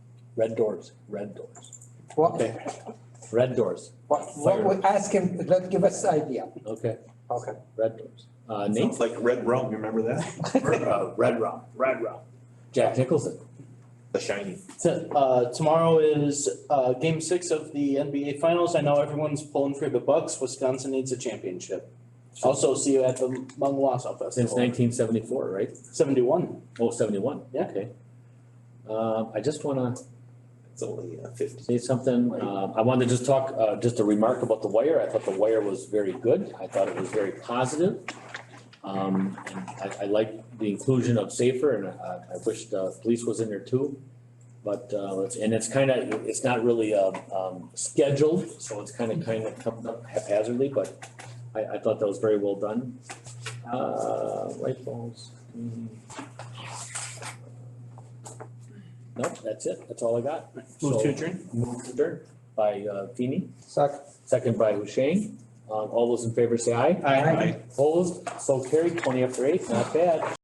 Red doors, red doors, What, okay, red doors, what, what we ask him, let give us idea. okay, Okay. red doors. Uh, Nate, Sounds like Red Rum, you remember that? uh, Red Rum, Red Rum, Jack Nicholson. The Shining. To- uh, tomorrow is, uh, game six of the NBA Finals. I know everyone's pulling for the Bucks. Wisconsin needs a championship. Also, see you at the Mung Wausau Since Festival. nineteen seventy-four, right? Seventy-one. Oh, seventy-one, Yeah. okay. Um, I just wanna It's only uh, fifty. say something, um, I wanted to just talk, uh, just a remark about the wire, I thought the wire was very good, I thought it was very positive. Um, and I, I like the inclusion of safer, and I, I wish the police was in there too. But, uh, it's, and it's kinda, it's not really, um, um, scheduled, so it's kinda, kinda comes up haphazardly, but I, I thought that was very well done. Uh, light bulbs. mm. Nope, that's it, that's all I got. Move So- to adjourn. Moved to adjourn by uh Feeny, Second. second by Hushain. Um all those in favor say aye. Aye. Opposed, so carried, twenty after eight, not bad.